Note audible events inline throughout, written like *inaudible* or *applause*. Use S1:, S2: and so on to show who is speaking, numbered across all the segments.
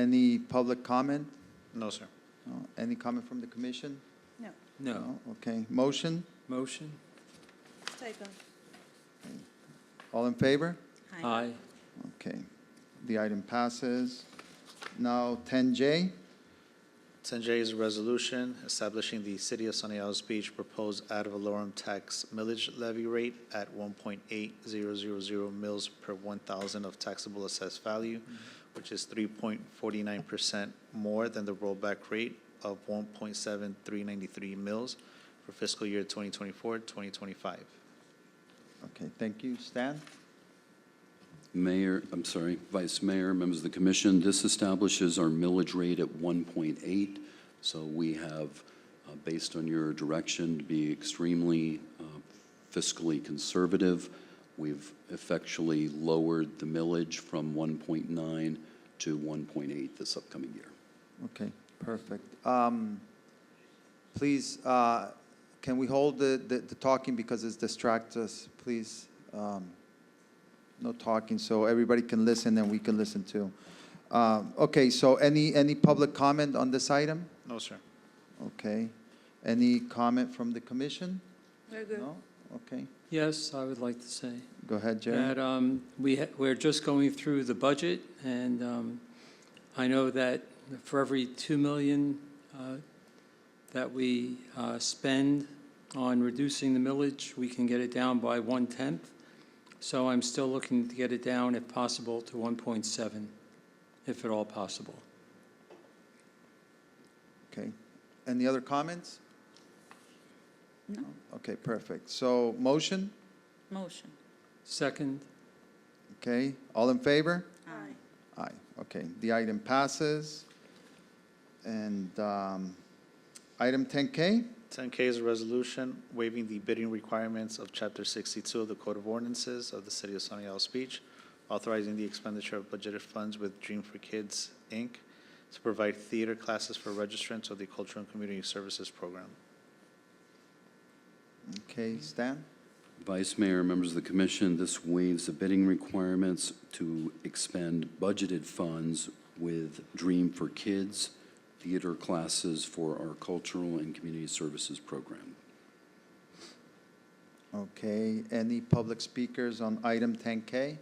S1: Any public comment?
S2: No, sir.
S1: No. Any comment from the commission?
S3: No,
S4: No.
S1: Okay, motion?
S4: Motion?
S3: typo.
S1: All in favor?
S3: Aye.
S1: Okay, the item passes. Now, 10J,
S2: 10J is a resolution establishing the City of Sunny Isles Beach proposed ad valorem tax millage levy rate at 1.8000 mils per 1,000 of taxable assessed value, which is 3.49% more than the rollback rate of 1.7393 mils for fiscal year 2024, 2025.
S1: okay, thank you. Stan?
S5: Mayor, I'm sorry, Vice Mayor, members of the commission, this establishes our millage rate at 1.8. So we have, uh, based on your direction, to be extremely uh, fiscally conservative. We've effectually lowered the millage from 1.9 to 1.8 this upcoming year.
S1: Okay, perfect. Um, Please, uh, can we hold the, the the talking because it distracts us, please? Um, No talking, so everybody can listen and we can listen too. Um, Okay, so any, any public comment on this item?
S2: No, sir.
S1: Okay. Any comment from the commission?
S3: We're good.
S1: No? Okay,
S4: Yes, I would like to say
S1: go ahead, Jerry.
S4: that um, we, ha- we're just going through the budget, and um, I know that for every 2 million uh, that we uh, spend on reducing the millage, we can get it down by one-tenth. So I'm still looking to get it down, if possible, to 1.7, if at all possible.
S1: Okay. Any other comments?
S3: No.
S1: Okay, perfect. So motion,
S3: Motion.
S4: Second?
S1: okay? All in favor?
S3: Aye.
S1: Aye, okay. The item passes. And um, item 10K,
S2: 10K is a resolution waiving the bidding requirements of Chapter 62 of the Code of Ordinances of the City of Sunny Isles Beach, authorizing the expenditure of budgeted funds with Dream for Kids, Inc., to provide theater classes for registrants of the Cultural and Community Services Program.
S1: okay, Stan?
S5: Vice Mayor, members of the commission, this waives the bidding requirements to expend budgeted funds with Dream for Kids theater classes for our cultural and community services program.
S1: Okay, any public speakers on item 10K?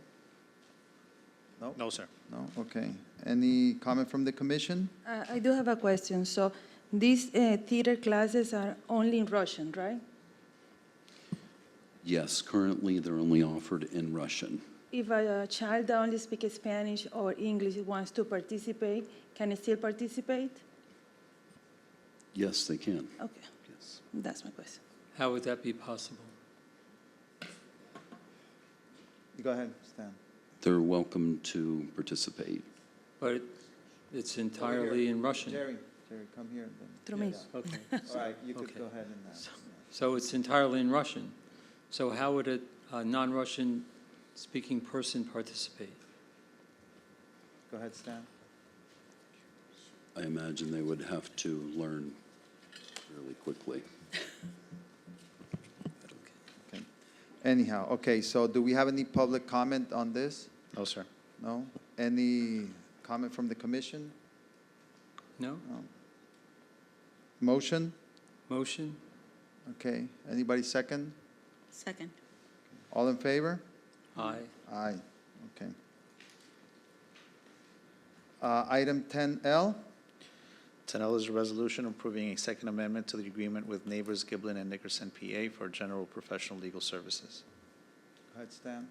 S2: No, sir.
S1: No, okay. Any comment from the commission?
S3: Uh, I do have a question. So these uh, theater classes are only in Russian, right?
S5: Yes, currently, they're only offered in Russian.
S3: If a uh, child that only speaks Spanish or English wants to participate, can he still participate?
S5: Yes, they can.
S3: Okay,
S5: Yes.
S3: that's my question.
S4: How would that be possible?
S1: Go ahead, Stan.
S5: They're welcome to participate.
S4: But it's
S1: Over here.
S4: entirely in Russian.
S1: Jerry, Jerry, come here. and then-
S3: Through me.
S1: Yeah.
S4: Okay.
S1: All right, you could
S4: Okay.
S1: go ahead and, uh,
S4: So it's entirely in Russian. So how would a, a non-Russian speaking person participate?
S1: go ahead, Stan.
S5: I imagine they would have to learn really quickly.
S1: Okay. Anyhow, okay, so do we have any public comment on this?
S2: No, sir.
S1: No? Any comment from the commission?
S4: No?
S1: No. Motion?
S4: Motion?
S1: Okay. Anybody second?
S3: Second.
S1: All in favor?
S4: Aye.
S1: Aye. Okay. Uh, Item 10L,
S2: 10L is a resolution approving a second amendment to the agreement with Neighbors Giblin and Nickerson, PA, for general professional legal services.
S1: go ahead, Stan.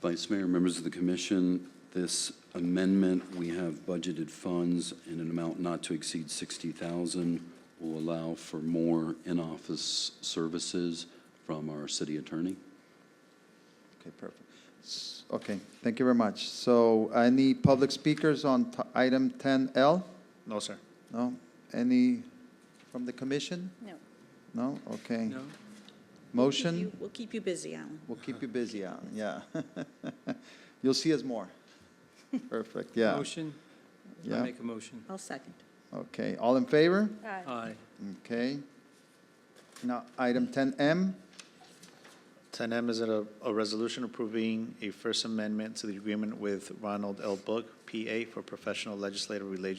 S5: Vice Mayor, members of the commission, this amendment, we have budgeted funds in an amount not to exceed 60,000, will allow for more in-office services from our city attorney.
S1: Okay, perfect. S- Okay, thank you very much. So any public speakers on t- item 10L?
S2: No, sir.
S1: No? Any from the commission?
S3: No.
S1: No? Okay.
S4: No?
S1: Motion?
S6: We'll keep you busy, Alan.
S1: We'll keep you busy, Alan, yeah. *laughs* You'll see us more. Perfect, yeah.
S4: Motion? I
S1: Yeah,
S4: make a motion.
S6: I'll second.
S1: okay. All in favor?
S3: Aye.
S4: Aye.
S1: Okay. Now, item 10M,
S2: Ten M is a, a resolution approving a First Amendment to the agreement with Ronald L. Book, PA, for professional legislative relation.